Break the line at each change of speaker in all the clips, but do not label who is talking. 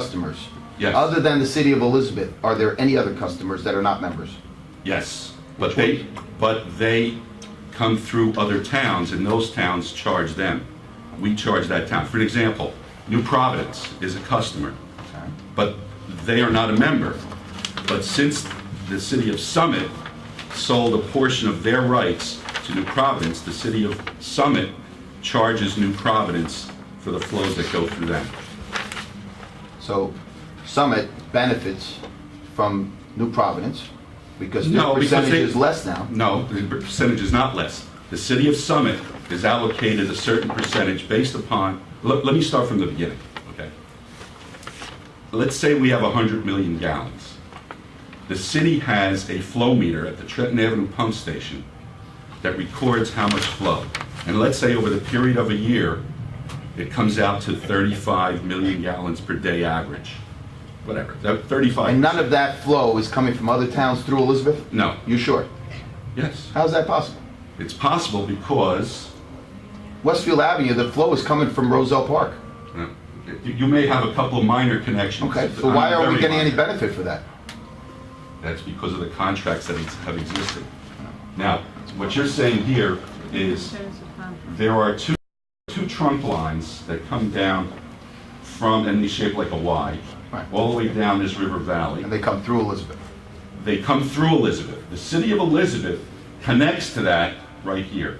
customers?
Yes.
Other than the city of Elizabeth, are there any other customers that are not members?
Yes, but they, but they come through other towns, and those towns charge them. We charge that town. For an example, New Providence is a customer, but they are not a member. But since the city of Summit sold a portion of their rights to New Providence, the city of Summit charges New Providence for the flows that go through them.
So Summit benefits from New Providence because their
No, because
percentage
they-
is less now.
No, the percentage is not less. The city of Summit is allocated a certain percentage based upon, let, let me start from the beginning, okay? Let's say we have 100 million gallons. The city has a flow meter at the Trenton Avenue pump station that records how much flow. And let's say over the period of a year, it comes out to 35 million gallons per day average, whatever, that- 35.
And none of that flow is coming from other towns through Elizabeth?
No,
You sure?
yes.
How's that possible?
It's possible because
Westfield Avenue, the flow is coming from Roselle Park.
You Uh, you may have a couple of minor connections.
Okay, so why are we
Very
getting any
minor.
benefit for that?
That's because of the contracts that ex- have existed. Now, what you're saying here is there are two, two trunk lines that come down from, and they shape like a Y,
Right.
all the way down this river valley.
And they come through Elizabeth.
They come through Elizabeth. The city of Elizabeth connects to that right here.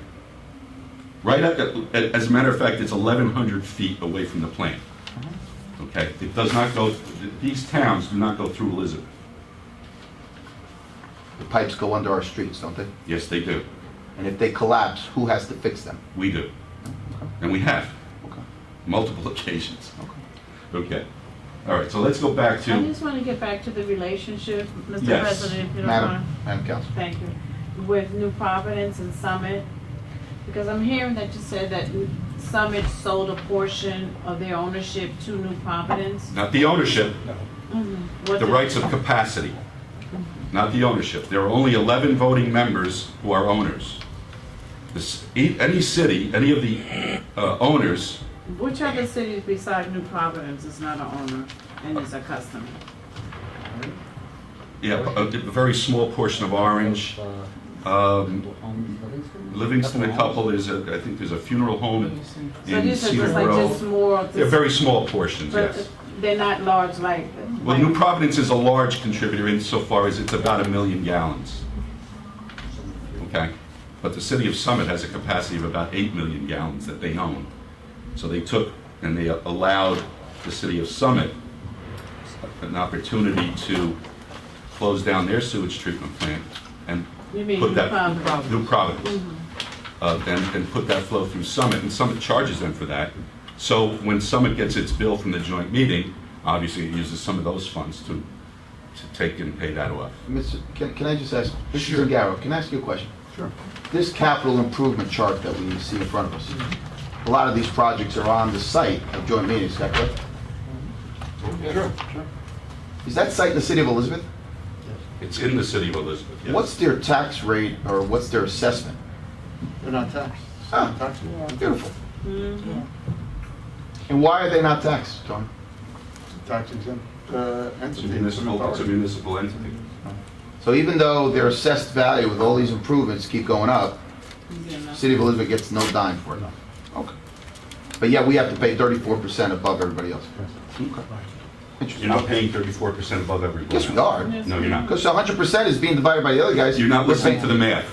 Right at, the- as a matter of fact, it's 1,100 feet away from the plant. Okay, it does not go, these towns do not go through Elizabeth.
The pipes go under our streets, don't they?
Yes, they do.
And if they collapse, who has to fix them?
We do. And we have,
Okay.
multiple occasions. Okay, all right, so let's go back
I
to,
just want to get back to the relationship, Mr.
Yes.
President, if you don't mind.
Madam, Madam Council.
Thank you. With New Providence and Summit, because I'm hearing that you said that Summit sold a portion of their ownership to New Providence.
not the ownership,
What's
the
it-
rights of capacity, not the ownership. There are only 11 voting members who are owners. This- e- Any city, any of the uh, owners,
Which other cities besides New Providence is not an owner and is a customer?
yeah, a a very small portion of Orange, um, Livingston, a couple, there's a, I think there's a funeral home
So
in
these are
Cedar
just like
Grove.
just more of
They're
the,
very small portions, yes.
but they're not large like.
Well, New Providence is a large contributor insofar as it's about a million gallons. Okay? But the city of Summit has a capacity of about 8 million gallons that they own. So they took and they allowed the city of Summit an opportunity to close down their sewage treatment plant and
You mean
put
New
that...
Providence.
New Providence. Uh, And, and put that flow through Summit, and Summit charges them for that. So when Summit gets its bill from the joint meeting, obviously it uses some of those funds to, to take and pay that off.
Mr., can, can I just ask, Mr.
Sure.
Zangaro, can I ask you a question? Sure. This capital improvement chart that we see in front of us, a lot of these projects are on the site of joint meetings, is that correct?
Sure.
Is that site in the city of Elizabeth?
It's in the city of Elizabeth, yes.
What's their tax rate or what's their assessment?
They're not taxed.
Ah.
Taxable.
Beautiful. And why are they not taxed, Tony?
Tax exempt uh,
It's a
entity.
municipal, it's a municipal entity.
So even though their assessed value with all these improvements keep going up,
You know.
city of Elizabeth gets no dime for it. Okay. But yet we have to pay thirty-four percent above everybody else.
You're not paying 34% above everyone
Yes, we
else.
are.
No, you're not.
Because hundred percent is being divided by the other guys.
You're not
We're
listening
paying-
to the math.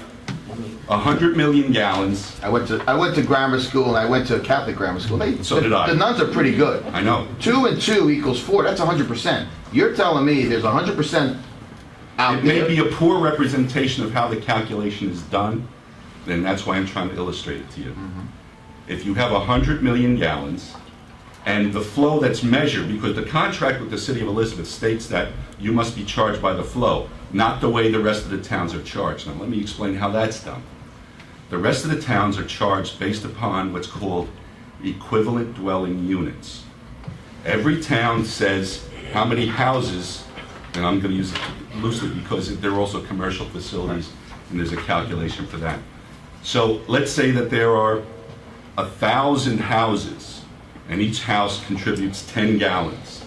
100 million gallons,
I went to, I went to grammar school and I went to a Catholic grammar school. They-
So did I.
The nuns are pretty good.
I know,
Two and two equals four, that's hundred percent. You're telling me there's hundred percent out
It may be
there?
a poor representation of how the calculation is done, and that's why I'm trying to illustrate it to you.
Mm-hmm.
If you have 100 million gallons, and the flow that's measured, because the contract with the city of Elizabeth states that you must be charged by the flow, not the way the rest of the towns are charged. Now, let me explain how that's done. The rest of the towns are charged based upon what's called equivalent dwelling units. Every town says how many houses, and I'm gonna use it loosely because there are also commercial facilities, and there's a calculation for that. So let's say that there are a thousand houses, and each house contributes ten gallons.